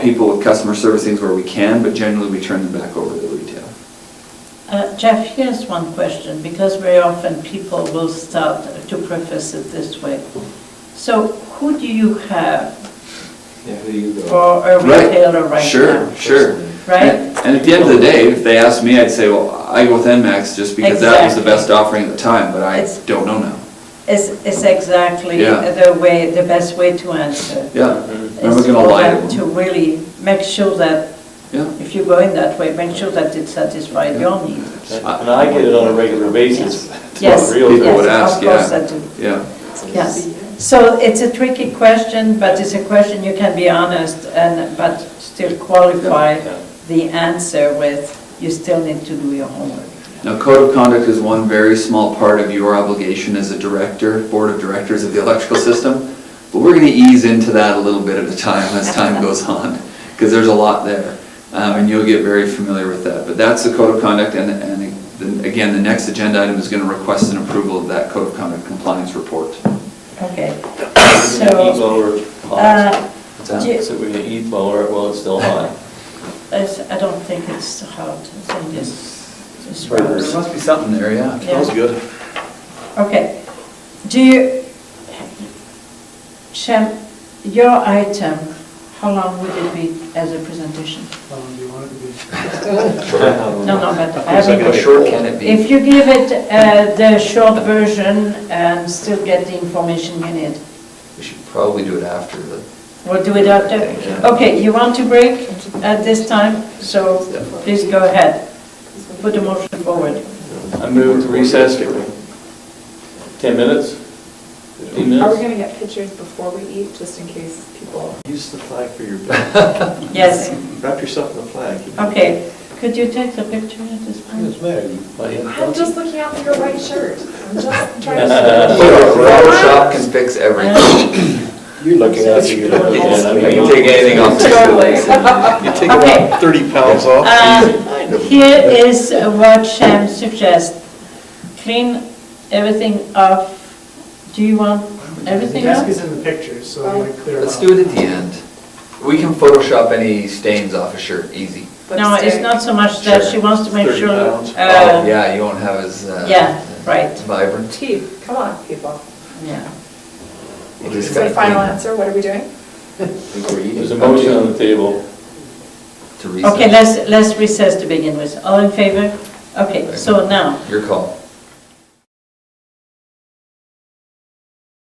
people with customer service things where we can, but generally we turn them back over to the retail. Uh, Jeff, here's one question, because very often people will start to preface it this way. So who do you have Yeah, who you go? for a Right. retailer right now? Sure, sure. Right? And- And at the end of the day, if they asked me, I'd say, well, I go with NMAX just because that was the Exactly. best offering at the time, but I It's- don't know now. Is, is exactly Yeah. the way, the best way to answer. Yeah, Mhm. I'm not gonna lie to Is for them to them. really make sure that, Yeah. if you go in that way, make sure that it satisfies your need. And I get it on a regular basis. Yes, Real People yes, would of ask, course yeah. I do. Yeah, Yes, so it's a tricky question, but it's a question you can be honest and, but still qualify Yeah. the answer with, you still need to do your homework. now code of conduct is one very small part of your obligation as a director, board of directors of the electrical system, but we're gonna ease into that a little bit at a time as time goes on, because there's a lot there, um, and you'll get very familiar with that, but that's the code of conduct, and, and the- again, the next agenda item is gonna request an approval of that code of conduct compliance report. Okay, Heat so, blower uh, hot. So do- we're gonna heat blower it while it's still hot. it's- I don't think it's hard, I think it's, it's There must be something there, yeah. Smells good. Okay, do you, Shem, your item, how long would it be as a presentation? How long do you want it to be? No, no, but I It's like haven't- Oh, a short can it If you give it uh, the short version and still get the information you need, We should probably do it after the, we'll do it after. Okay, you want to break at this time, so please go ahead. Put the motion forward. I move to recess for 10 minutes, 15 Are we minutes. gonna get pictures before we eat, just in case people? Use the flag for your, Yes, wrap yourself in the flag. okay. Could you take the picture at this point? I'm just looking out for your white shirt. I'm just trying Photo- to. Photoshop can fix everything. Uh, You're looking at you. I can take anything off. You take about Okay. 30 pounds off. uh, Here is what Shem suggests. Clean everything off. Do you want everything Desk off? is in the picture, so I'm gonna clear it Let's off. do it at the end. We can Photoshop any stains off a shirt, easy. No, it's Lipstick. not so much that, she Sure. wants to make Thirty sure, pounds. Oh, uh, Yeah, you won't have as. uh, yeah, right. Vibrant. Teeth, come on, people. yeah. We'll just So kinda final clean answer, what are we doing? There's a motion on the table. To Okay, reset. let's, let's recess to begin with. All in favor? Okay, so now, Your call.